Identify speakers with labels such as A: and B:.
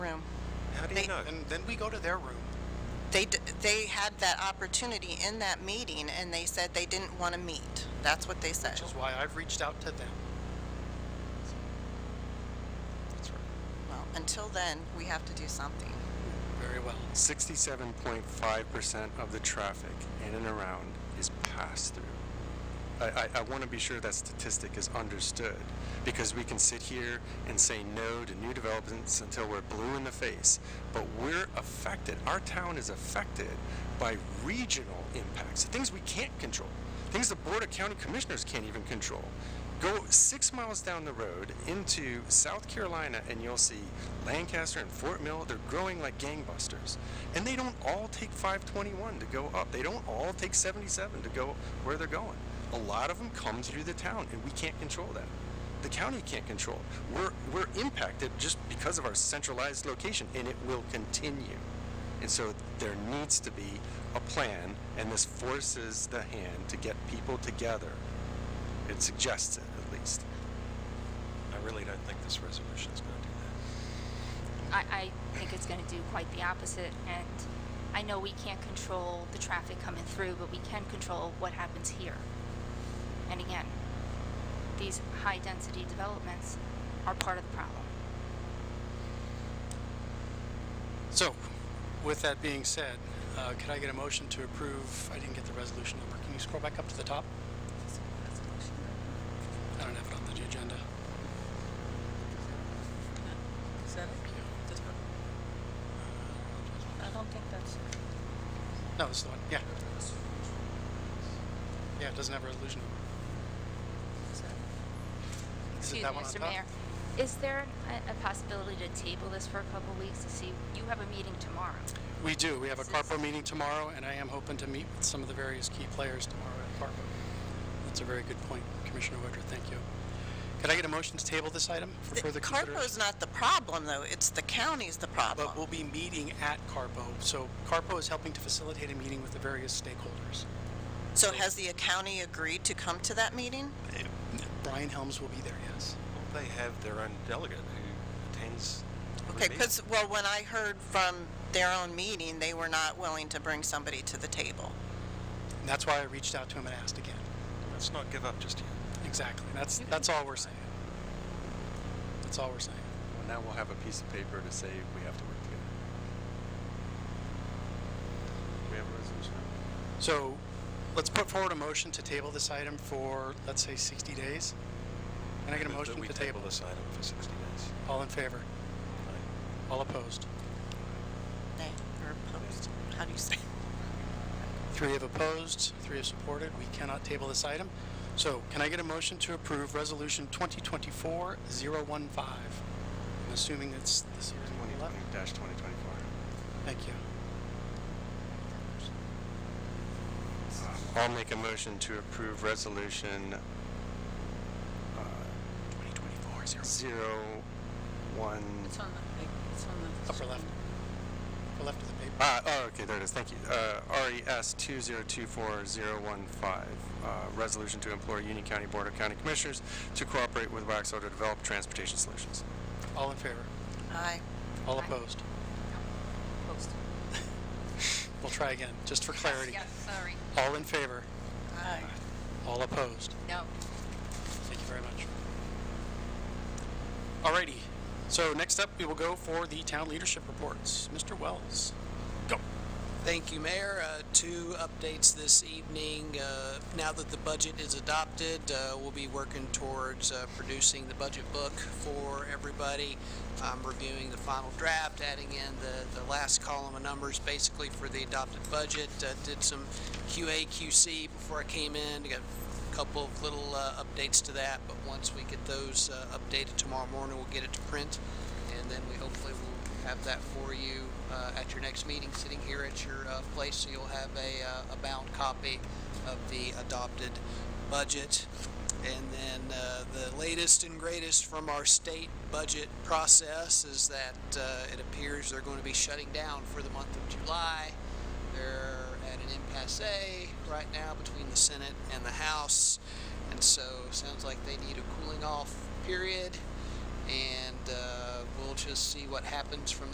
A: do you
B: They-
A: know? And then we go to their room.
B: They, d- they had that opportunity in that meeting, and they said they didn't want to meet. That's what they said.
A: Which is why I've reached out to them. That's right.
B: Well, until then, we have to do something.
A: Very well.
C: 67.5% of the traffic in and around is passed through. I, I, I want to be sure that statistic is understood because we can sit here and say no to new developments until we're blue in the face. But we're affected, our town is affected by regional impacts, things we can't control, things the Board of County Commissioners can't even control. Go six miles down the road into South Carolina and you'll see Lancaster and Fort Mill, they're growing like gangbusters. And they don't all take 521 to go up, they don't all take 77 to go where they're going. A lot of them come through the town and we can't control that. The county can't control it. We're, we're impacted just because of our centralized location and it will continue. And so there needs to be a plan and this forces the hand to get people together. It suggests it at least.
D: I really don't think this resolution is going to do that.
E: I, I think it's going to do quite the opposite. And I know we can't control the traffic coming through, but we can control what happens here. And again, these high density developments are part of the problem.
A: So, with that being said, uh, could I get a motion to approve? I didn't get the resolution number. Can you scroll back up to the top? I don't have it on the agenda.
F: Is that it? This one? I don't think that's it.
A: No, this is the one. Yeah. Yeah, it doesn't have a resolution
F: Is that it?
A: number. Is it
E: Excuse
A: that
E: me,
A: one on
E: Mr.
A: top?
E: Mayor. Is there a, a possibility to table this for a couple weeks to see? You have a meeting tomorrow.
A: We do. We have a
E: Is this-
A: CARPO meeting tomorrow, and I am hoping to meet with some of the various key players tomorrow at CARPO. That's a very good point, Commissioner Woodruff. Thank you. Could I get a motion to table this item for
B: The
A: further consideration?
B: CARPO's not the problem, though. It's the county's the problem.
A: But we'll be meeting at CARPO. So CARPO is helping to facilitate a meeting with the various stakeholders.
B: So has the county agreed to come to that meeting?
A: Brian Helms will be there, yes.
D: Well, they have their own delegate who attends. every
B: Okay,
D: meeting.
B: because, well, when I heard from their own meeting, they were not willing to bring somebody to the table.
A: And that's why I reached out to him and asked again.
D: Let's not give up just yet.
A: Exactly. That's, that's all we're saying. That's all we're saying.
C: Well, now we'll have a piece of paper to say we have to work together. We have a resolution.
A: So let's put forward a motion to table this item for, let's say, 60 days. Can I get a
D: Move that
A: motion
D: we
A: to table this?
D: this item for 60 days.
A: All in favor?
D: Aye.
A: All opposed?
B: They were opposed. How do you say?
A: Three have opposed, three have supported. We cannot table this item. So can I get a motion to approve Resolution 2024-015? I'm assuming it's this year's one eleven.
C: 2020-2024.
A: Thank you.
C: I'll make a motion to approve resolution
A: 2024-0.
C: 01,
F: It's on the, it's on the.
A: Upper left. Upper left of the paper.
C: ah, oh, okay, there it is, thank you. Uh, RES 2024015, uh, resolution to implore Union County Board of County Commissioners to cooperate with Waxhaw to develop transportation solutions.
A: All in favor?
B: Aye.
A: All
E: Aye.
A: opposed?
F: Post.
A: We'll try again, just for clarity.
F: sorry.
A: All in favor?
B: Aye.
A: All opposed?
F: No.
A: Thank you very much. Alrighty, so next up, we will go for the town leadership reports. Mr. Wells, go.
G: Thank you, Mayor. Uh, Two updates this evening. Uh, Now that the budget is adopted, uh, we'll be working towards uh, producing the budget book for everybody, um, reviewing the final draft, adding in the, the last column of numbers basically for the adopted budget. Uh, Did some QA, QC before I came in, got a couple of little uh, updates to that, but once we get those uh, updated tomorrow morning, we'll get it to print and then we hopefully will have that for you uh, at your next meeting, sitting here at your uh, place, so you'll have a, uh, a bound copy of the adopted budget. And then uh, the latest and greatest from our state budget process is that uh, it appears they're going to be shutting down for the month of July. They're at an impasse right now between the Senate and the House, and so sounds like they need a cooling off period and uh, we'll just see what happens from